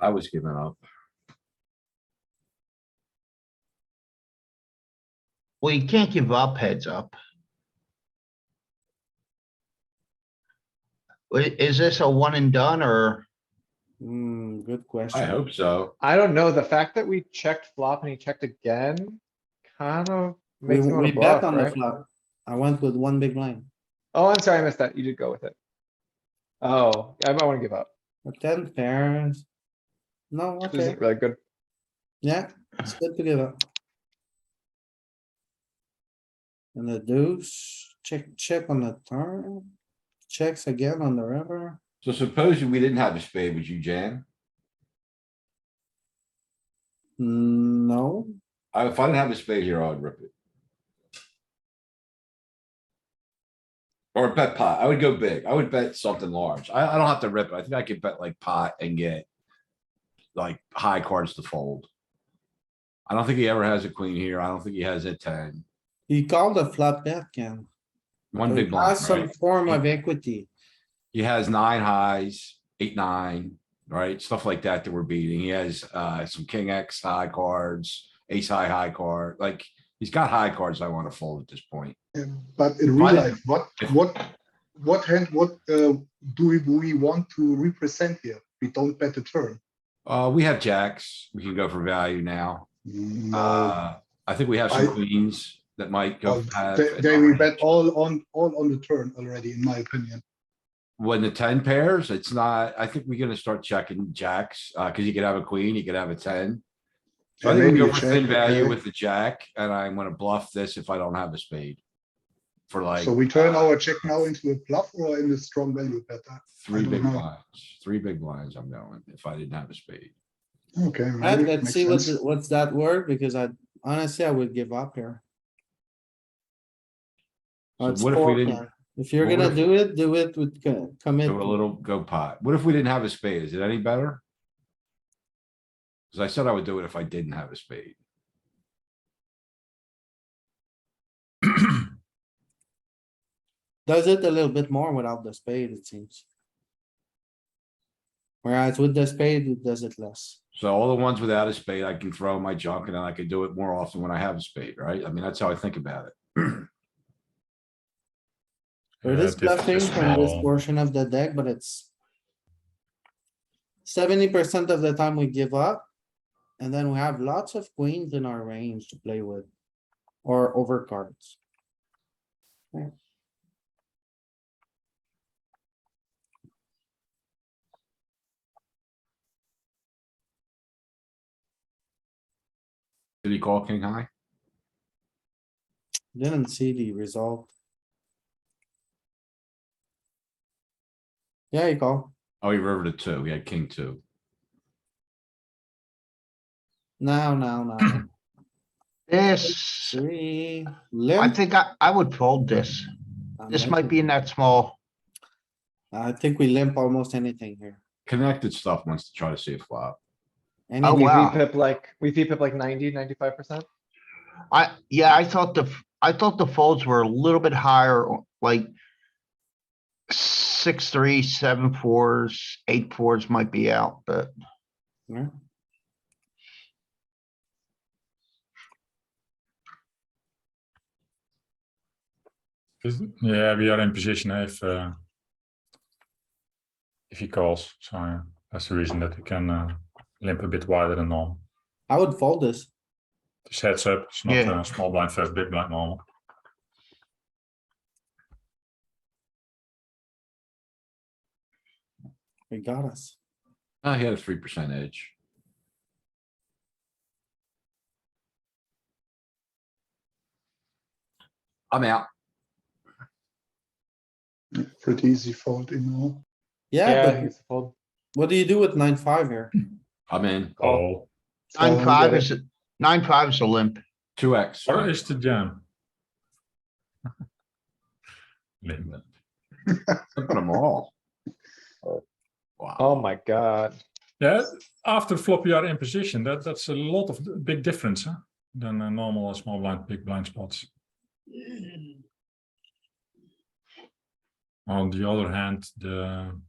I was giving up. Well, you can't give up heads up. Wait, Is this a one and done or? Hmm, good I question. hope so. I don't know, the fact that we checked flop and he checked again, kind of We, makes me we wanna bet bluff, on the right? flop. I went with one big line. Oh, I'm sorry, I missed that, you did go with it. Oh, I might wanna give up, A ten pairs. No, this okay, isn't really good, yeah, it's good to give up. And the deuce, check, check on the turn, checks again on the river. So supposing we didn't have a spade, would you jam? Hmm, No, I- If I didn't have a spade here, I'd rip it. Or bet pot. I would go big. I would bet something large. I, I don't have to rip it. I think I could bet like pot and get like high cards to fold. I don't think he ever has a queen here. I don't think he has a ten. you call the flop bet, Ken. One So big it blind, has Some right? form of equity. He has nine highs, eight, nine, right? Stuff like that that we're beating. He has uh some king X high cards, ace high high card. Like, he's got high cards I want to fold at this point. Yeah, But in real Right. life, what, what, what hand, what uh, do we- we want to represent here? We don't bet the turn. Uh, we have jacks. We can go for value now. No. Uh, I think we have some I- Oh, queens that might go. Well, half Uh, they- and They we nine. bet all on, all on the turn already, in my opinion. When the ten pairs, it's not, I think we're gonna start checking jacks, uh, cuz you could have a queen, you could have a ten. So I And think we maybe go a for check, thin value okay. with the jack, and I'm gonna bluff this if I don't have a spade. For like uh, So we turn our check now into a bluff or in the strong value bet. I- three don't big know. blinds, three big blinds I'm going, if I didn't have a spade. Okay. Right, maybe it let's makes see what's, sense. what's that word, because I honestly, I would give up here. So It's what if we four didn't pair. If you're what gonna if- do it, do it with co- commit. do a little go pot? What if we didn't have a spade? Is it any better? Cuz I said I would do it if I didn't have a spade. Does it a little bit more without the spade, it seems. Whereas with the spade, it does it less. So all the ones without a spade, I can throw in my junk and then I could do it more often when I have a spade, right? I mean, that's how I think about it. So It Yeah, is this is bluffing from this small. portion of the deck, but it's. Seventy percent of the time we give up. And then we have lots of queens in our range to play with. Or over cards. Did he call king high? Didn't see the result. Yeah, you call. Oh, he rivered a two. He had king two. Now, now, now. This, Three. I limp. think I, I would fold this. I'm This limping. might be in that small. I think we limp almost anything here. Connected stuff wants to try to see a flop. Oh, Anything. we wow. pip like, we pip like 90, 95 percent, I, yeah, I thought the, I thought the folds were a little bit higher, like six, three, seven, fours, eight, fours might be out, but Yeah. Is- Yeah, we are in position if uh, if he calls. So uh, that's the reason that we can uh, limp a bit wider than normal. I would fold this. This heads up. It's not Yeah. uh, small blind first, big blind normal. We got us. Oh, he had a three percent edge. I'm out. Pretty easy fold, you know. Yeah, yeah, but he's fold. what do you do with nine, five here? I'm in. Call. nine, So- five is, nine, five is a limp. Two X. Or is the jam? Limp. Flipping them all. Wow. Oh my god, Yeah, after flop you are in position. That that's a lot of d- big difference huh? than uh, normal or small blind, big blind spots. On the other hand, the